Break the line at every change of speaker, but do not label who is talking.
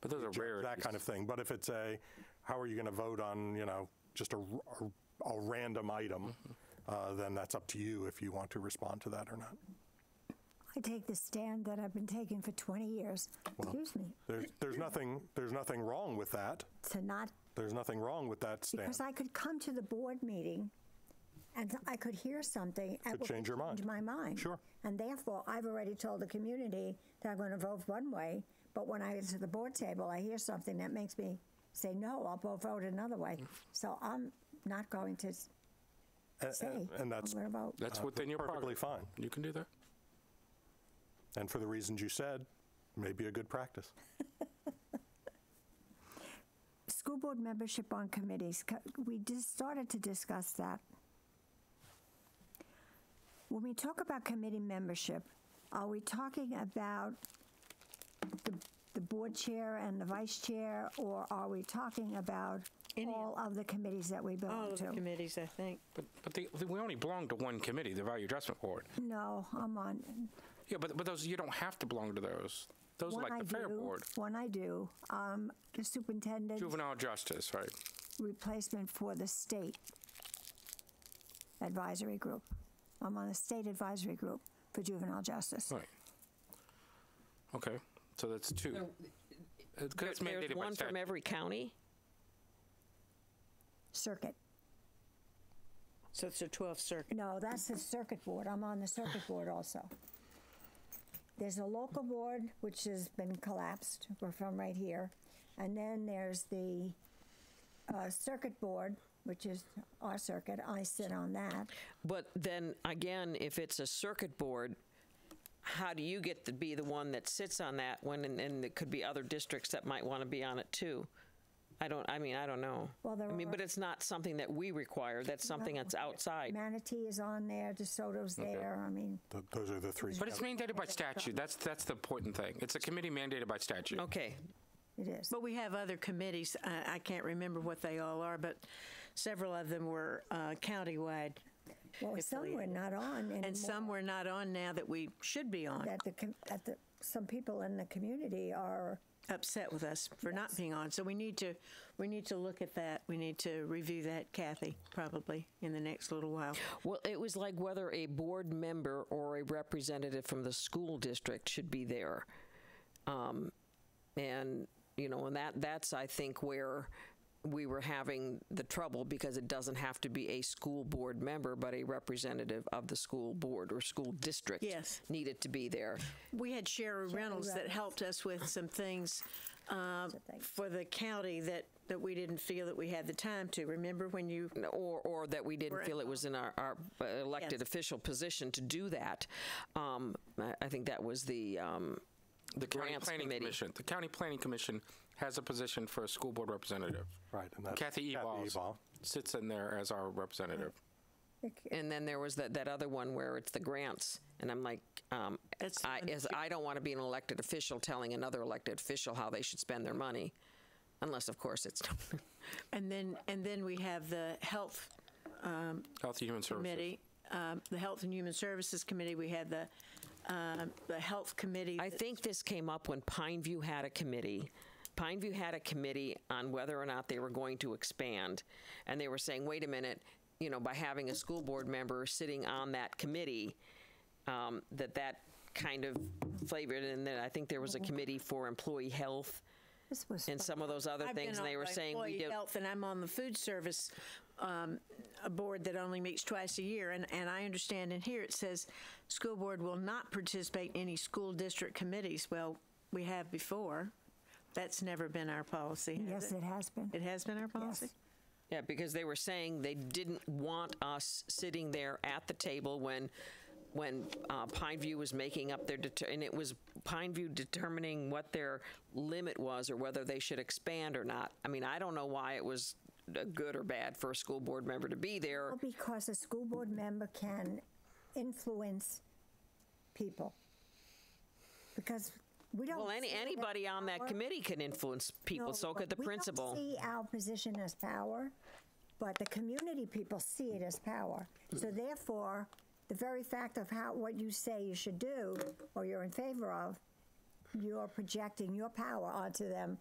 But those are rare.
that kind of thing. But if it's a, how are you going to vote on, you know, just a, r- a- a random item,
Mm-hmm.
uh, then that's up to you if you want to respond to that or not.
I take the stand that I've been taking for 20 years. Excuse me,
There's, there's nothing, there's nothing wrong with that.
to not,
There's nothing wrong with that stand.
because I could come to the board meeting and I could hear something. and
Could
it
change your mind.
Change my mind.
Sure.
And therefore, I've already told the community that I'm going to vote one way, but when I get to the board table, I hear something that makes me say, no, I'll go vote another way.
Mm.
So I'm not going to s-
And-
say,
and-
I'm
And that's,
going to vote.
That's
Uh,
within your
perfectly
prerogative. You can do that.
and for the reasons you said, may be a good practice.
School board membership on committees, co- we just started to discuss that. When we talk about committee membership, are we talking about the, the board chair and the vice chair, or are we talking about
Any-
all of the committees that we
All
belong
of the
to?
committees, I think.
But, but they, they- we only belong to one committee, the Value Adjustment Board.
No, I'm on.
Yeah, but, but those, you don't have to belong to those. Those are
One
like
I
the Fair
do-
Board.
One I do, um, the superintendent.
Juvenile Justice, right?
replacement for the state advisory group. I'm on the state advisory group for juvenile justice.
Right. Okay, so that's two. Uh, 'cause That's
There's
mandated by
one from
statute.
every county,
Circuit.
so it's the 12th Circuit.
No, that's the circuit board. I'm on the circuit board also. There's a local board, which has been collapsed. We're from right here. And then there's the uh, circuit board, which is our circuit. I sit on that.
But then again, if it's a circuit board, how do you get to be the one that sits on that when, and, and there could be other districts that might want to be on it too? I don't, I mean, I don't know.
Well, there
I mean,
are-
but it's not something that we require, that's something that's outside.
Manatee is on there, DeSoto's there. I mean,
Th- Those are the three.
But it's mandated by statute. That's, that's the important thing. It's a committee mandated by statute.
Okay,
it is.
But we have other committees. I, I can't remember what they all are, but several of them were uh, countywide.
Well, some were not on
And
anymore.
some we're not on now that we should be on.
that the, com- that the, some people in the community are,
Upset with us for not being on. So we need to, we need to look at that. We need to review that, Kathy, probably in the next little while.
well, it was like whether a board member or a representative from the school district should be there. Um, and you know, and that that's I think where we were having the trouble because it doesn't have to be a school board member, but a representative of the school board or school district
Yes.
needed to be there.
We had Sherry Reynolds that helped us with some things uh, for the county that, that we didn't feel that we had the time to. Remember when you
or or that we didn't feel it was in our, our uh, elected
Yes.
official position to do that. Um, I, I think that was the um,
The County
grants
Planning
committee.
Commission, the County Planning Commission has a position for a school board representative.
Right, and that's
Kathy
Kathy
Eballs
Ebal.
sits in there as our representative.
and then there was that, that other one where it's the grants, and I'm like, um,
That's the
I
one
as, I don't want to be an elected official telling another elected official how they should spend their money, unless of course it's
And then, and then we have the Health um,
Health and Human Services.
Committee, um, the Health and Human Services Committee, we had the, um, the Health Committee.
I think this came up when Pineview had a committee. Pineview had a committee on whether or not they were going to expand. And they were saying, wait a minute, you know, by having a school board member sitting on that committee, um, that that kind of flavored. And then I think there was a committee for employee health
this was,
and some of those other
I've
things.
been
And they
on
were
the
saying we
Employee
did.
Health, and I'm on the Food Service um, a board that only meets twice a year, and, and I understand in here it says, "School board will not participate in any school district committees." Well, we have before. That's never been our policy.
yes,
has
it has been.
It has been our policy?
Yeah, because they were saying they didn't want us sitting there at the table when, when uh, Pineview was making up their, deter- and it was Pineview determining what their limit was or whether they should expand or not. I mean, I don't know why it was uh, good or bad for a school board member to be there.
Well, because a school board member can influence people. Because we don't.
Well, any,
see that
anybody on that
power-
committee can influence people,
No,
so could
but
the
we don't
principal.
see our position as power, but the community people see it as power. So therefore, the very fact of how, what you say you should do or you're in favor of, you're projecting your power onto them